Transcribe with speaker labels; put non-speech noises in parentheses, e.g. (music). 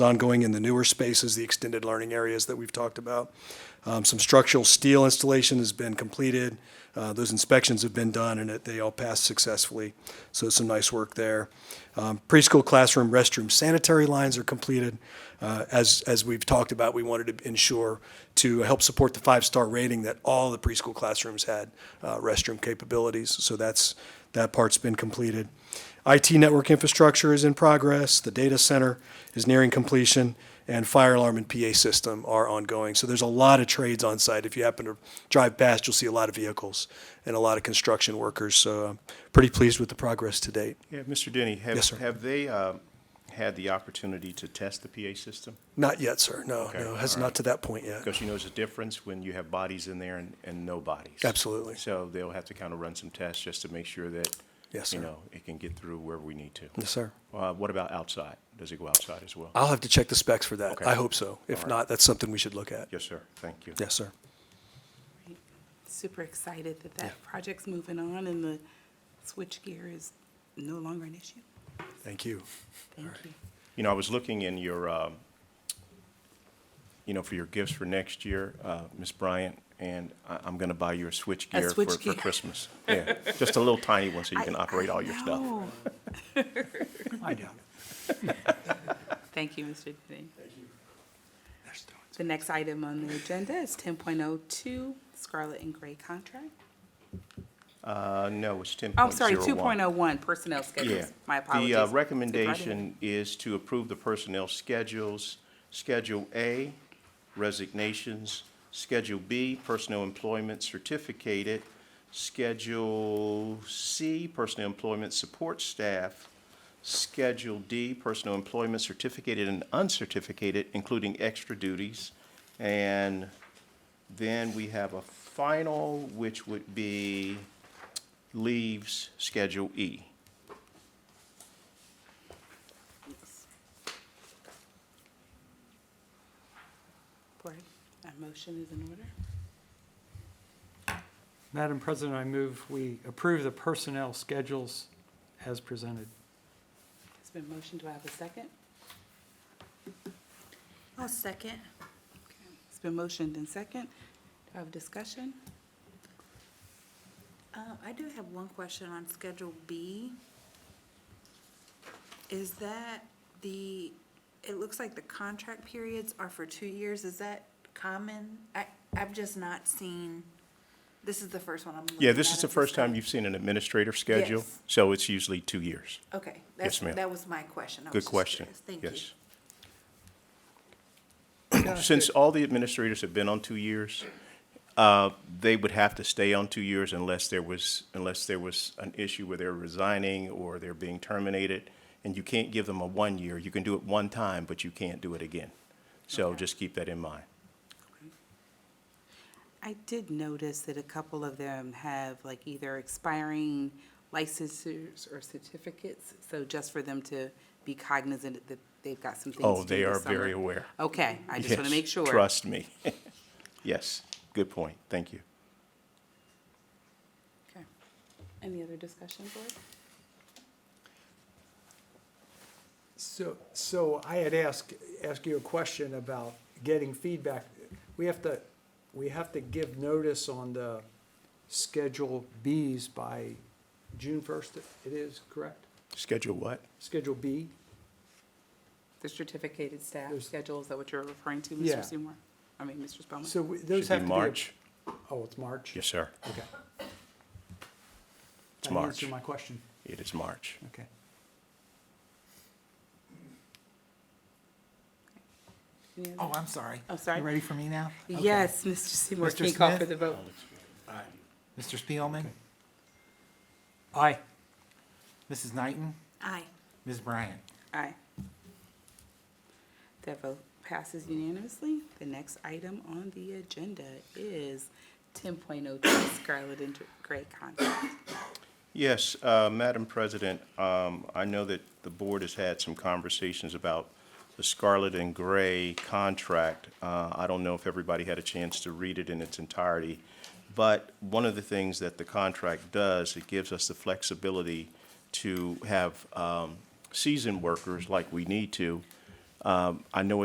Speaker 1: ongoing in the newer spaces, the extended learning areas that we've talked about. Um, Some structural steel installation has been completed. Uh, Those inspections have been done, and it- they all passed successfully, so some nice work there. Um, Preschool classroom restroom sanitary lines are completed. Uh, As, as we've talked about, we wanted to ensure to help support the five-star rating that all the preschool classrooms had uh, restroom capabilities, so that's, that part's been completed. IT network infrastructure is in progress, the data center is nearing completion, and fire alarm and PA system are ongoing. So there's a lot of trades on site. If you happen to drive past, you'll see a lot of vehicles and a lot of construction workers. So I'm pretty pleased with the progress to date.
Speaker 2: Yeah, Mr. Denny, have,
Speaker 1: Yes, sir.
Speaker 2: have they uh, had the opportunity to test the PA system?
Speaker 1: Not yet, sir. No,
Speaker 2: Okay,
Speaker 1: no, has
Speaker 2: all
Speaker 1: not to that point yet.
Speaker 2: Because you know there's a difference when you have bodies in there and, and no bodies.
Speaker 1: Absolutely.
Speaker 2: So they'll have to kind of run some tests just to make sure that,
Speaker 1: Yes,
Speaker 2: you
Speaker 1: sir.
Speaker 2: know, it can get through wherever we need to.
Speaker 1: Yes, sir. Uh,
Speaker 2: Uh, What about outside? Does it go outside as well?
Speaker 1: I'll have to check the specs for that.
Speaker 2: Okay.
Speaker 1: I hope so. If
Speaker 2: All right.
Speaker 1: not, that's something we should look at.
Speaker 2: Yes, sir. Thank you.
Speaker 1: Yes, sir.
Speaker 3: super excited that that project's moving on and the switchgear is no longer an issue.
Speaker 1: Thank you.
Speaker 3: Thank you.
Speaker 2: You know, I was looking in your, um, you know, for your gifts for next year, uh, Ms. Bryant, and I- I'm going to buy you a switchgear for- for
Speaker 3: switchgear. (laughs)
Speaker 2: Christmas. Yeah, just a little tiny one so you
Speaker 3: I-
Speaker 2: can operate all your stuff.
Speaker 3: No. Thank you, Mr. Denny. The next item on the agenda is ten point oh two, Scarlet and Gray contract.
Speaker 2: Uh, no, it's ten
Speaker 3: I'm sorry, two point oh one, personnel schedules. My apologies.
Speaker 2: The uh,
Speaker 3: Supervisor.
Speaker 2: recommendation is to approve the personnel schedules, Schedule A, resignations, Schedule B, personnel employment certificated, Schedule C, personnel employment support staff, Schedule D, personnel employment certificated and uncertificated, including extra duties, and then we have a final, which would be leaves Schedule E.
Speaker 3: Board, a motion is in order.
Speaker 4: Madam President, I move we approve the personnel schedules as presented.
Speaker 3: It's been motioned. Do I have a second?
Speaker 5: I'll second.
Speaker 3: It's been motioned and second. Do I have discussion?
Speaker 5: Uh, I do have one question on Schedule B. Is that the, it looks like the contract periods are for two years. Is that common? I, I've just not seen, this is the first one I'm looking at.
Speaker 2: Yeah, this is the
Speaker 5: at
Speaker 2: first time you've seen an administrative schedule,
Speaker 5: Yes.
Speaker 2: so it's usually two years.
Speaker 5: Okay. that's-
Speaker 2: ma'am.
Speaker 5: That was my question.
Speaker 3: Oh,
Speaker 5: I was
Speaker 2: Good
Speaker 5: just
Speaker 2: question.
Speaker 5: curious. Thank you.
Speaker 2: Yes. (coughs) Since all the administrators have been on two years, uh, they would have to stay on two years unless there was, unless there was an issue where they're resigning or they're being terminated. And you can't give them a one year. You can do it one time, but you can't do it again. So just keep that in mind.
Speaker 3: I did notice that a couple of them have like either expiring licenses or certificates, so just for them to be cognizant that they've got some things
Speaker 2: Oh,
Speaker 3: to do
Speaker 2: they
Speaker 3: this
Speaker 2: are very
Speaker 3: summer.
Speaker 2: aware.
Speaker 3: Okay, I just want
Speaker 2: Yes,
Speaker 3: to make sure.
Speaker 2: Trust me. (laughs) Yes, good point. Thank you.
Speaker 3: Okay. Any other discussion, board?
Speaker 6: So, so I had asked, asked you a question about getting feedback. We have to, we have to give notice on the Schedule Bs by June first, it is, correct?
Speaker 2: Schedule what?
Speaker 6: Schedule B?
Speaker 3: The certificated staff
Speaker 6: There's-
Speaker 3: schedule, is that what you're referring to,
Speaker 6: Yeah.
Speaker 3: Mr. Seymour? I mean, Mr. Spelman?
Speaker 6: So we-
Speaker 2: Should
Speaker 6: those
Speaker 2: be
Speaker 6: have to be. a-
Speaker 2: March.
Speaker 6: Oh, it's March?
Speaker 2: Yes, sir.
Speaker 6: Okay.
Speaker 2: It's
Speaker 6: That
Speaker 2: March.
Speaker 6: answered my question,
Speaker 2: It is March.
Speaker 6: okay.
Speaker 3: Any other-
Speaker 7: Oh, I'm sorry.
Speaker 3: I'm sorry?
Speaker 7: You ready for me now?
Speaker 3: Yes, Mr. Seymour,
Speaker 7: Mr.
Speaker 3: can you call for
Speaker 7: Smith?
Speaker 3: the vote?
Speaker 7: Mr. Spielman,
Speaker 4: Aye.
Speaker 7: Mrs. Knighton,
Speaker 5: Aye.
Speaker 7: Ms. Bryant.
Speaker 3: Aye. That vote passes unanimously. The next item on the agenda is ten point oh two Scarlet and Gray contract.
Speaker 2: Yes, uh, Madam President, um, I know that the board has had some conversations about the Scarlet and Gray contract. Uh, I don't know if everybody had a chance to read it in its entirety, but one of the things that the contract does, it gives us the flexibility to have um, seasoned workers like we need to Um, I know